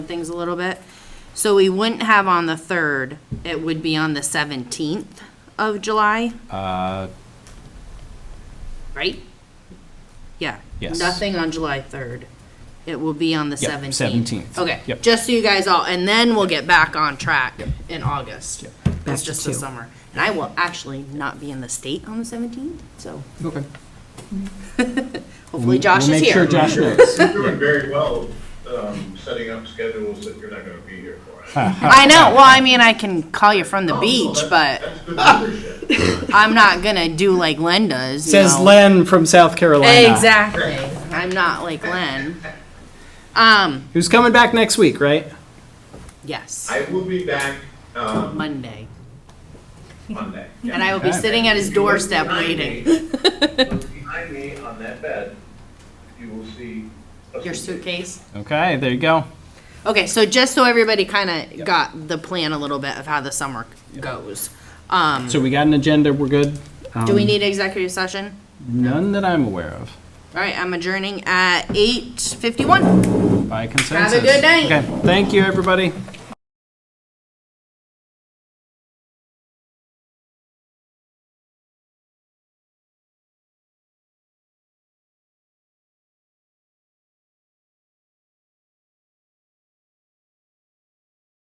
things a little bit. So we wouldn't have on the 3rd, it would be on the 17th of July, Uh, right? Yeah. Yes. Nothing on July 3rd. It will be on the Yep, 17th. 17th. Okay, Yep. just so you guys all, and then we'll get back on track Yep. in August. Yep. Back It's to just the two. summer. And I will actually not be in the state on the 17th, so Okay. hopefully Josh is Make sure here. Josh knows. You're doing very well, um, setting up schedules that you're not gonna be here for. I know, well, I mean, I can call you from the beach, Oh, Well, that- but That's good leadership. I'm not gonna do like Len does, you Says know. Len from South Carolina. Exactly. I'm not like Len. Um, Who's coming back next week, right? yes, I will be back, um, Monday. Monday. And I will be sitting at his doorstep waiting. Look Behind me on that bed, you will see. a Your suitcase? Okay, there you go. Okay, so just so everybody kinda got the plan a little bit of how the summer goes. Um, So we got an agenda. We're good. do Um, we need executive session? None that I'm aware of. All right, I'm adjourning at eight fifty-one. By consensus. good night. Okay. Thank you, everybody.